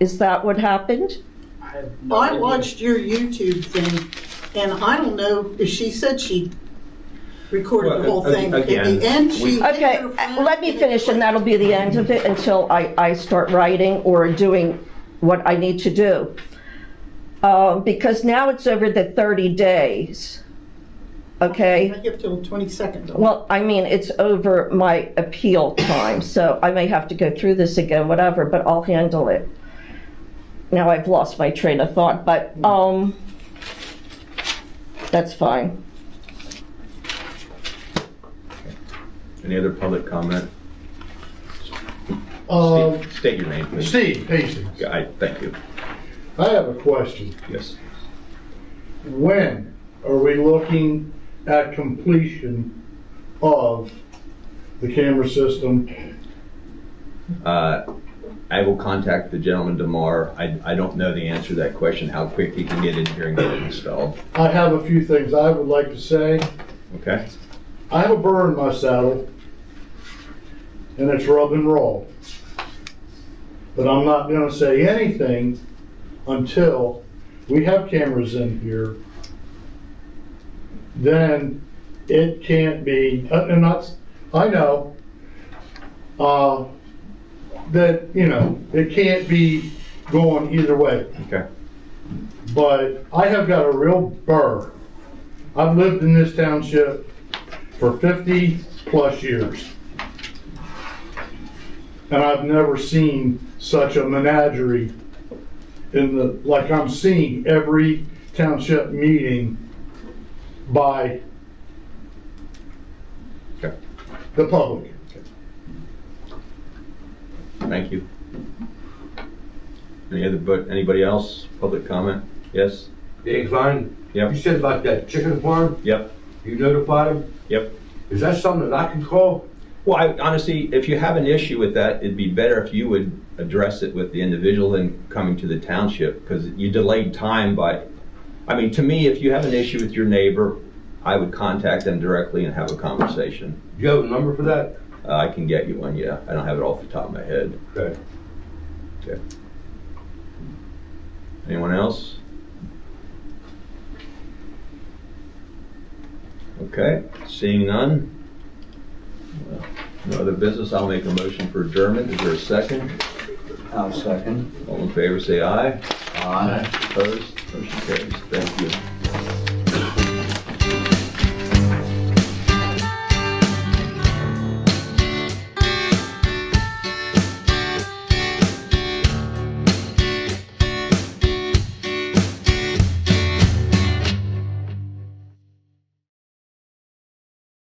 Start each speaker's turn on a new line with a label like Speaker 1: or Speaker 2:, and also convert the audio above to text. Speaker 1: Is that what happened?
Speaker 2: I have no
Speaker 3: I
Speaker 2: idea.
Speaker 3: watched your YouTube thing, and I don't know if she said she recorded
Speaker 2: Well,
Speaker 3: the whole
Speaker 2: a- a-
Speaker 3: thing. At
Speaker 2: again,
Speaker 3: the end, she.
Speaker 1: Okay, uh, let me finish, and that'll be the end of it until I, I start writing or doing what I need to do. Um, Because now it's over the 30 days, okay?
Speaker 3: I give till twenty-second.
Speaker 1: Well, I mean, it's over my appeal time, so I may have to go through this again, whatever, but I'll handle it. Now I've lost my train of thought, but, um, that's fine.
Speaker 4: Any other public comment?
Speaker 5: Uh,
Speaker 4: State- State your name, please.
Speaker 5: Steve Hastings,
Speaker 4: Yeah, I, thank you.
Speaker 5: I have a question.
Speaker 4: Yes.
Speaker 5: When are we looking at completion of the camera system?
Speaker 4: Uh, I will contact the gentleman tomorrow. I, I don't know the answer to that question, how quick he can get in here and get it installed.
Speaker 5: I have a few things I would like to say.
Speaker 4: Okay?
Speaker 5: I have a burr in my saddle, and it's rub and roll. But I'm not gonna say anything until we have cameras in here. Then it can't be, uh, and that's, I know, uh, that, you know, it can't be going either way
Speaker 4: Okay.
Speaker 5: but I have got a real burr. I've lived in this township for 50 plus years. And I've never seen such a menagerie in the, like I'm seeing every township meeting by
Speaker 4: Okay.
Speaker 5: the public.
Speaker 4: Thank you. Any other, but, anybody else? Public comment? Yes?
Speaker 6: Dave Klein?
Speaker 4: Yep.
Speaker 6: You said about that chicken farm,
Speaker 4: Yep.
Speaker 6: you notified him?
Speaker 4: Yep.
Speaker 6: Is that something that I can call?
Speaker 4: Well, I, honestly, if you have an issue with that, it'd be better if you would address it with the individual than coming to the township, because you delayed time by, I mean, to me, if you have an issue with your neighbor, I would contact them directly and have a conversation.
Speaker 6: Do you have a number for that?
Speaker 4: Uh, I can get you one, yeah, I don't have it off the top of my head.
Speaker 6: Okay.
Speaker 4: Anyone else? Okay, seeing none. Well, No other business, I'll make a motion for adjournment, is there a second?
Speaker 7: I'll second.
Speaker 4: All in favor, say aye.
Speaker 7: Aye.
Speaker 4: Opposed? Motion carries. Thank you.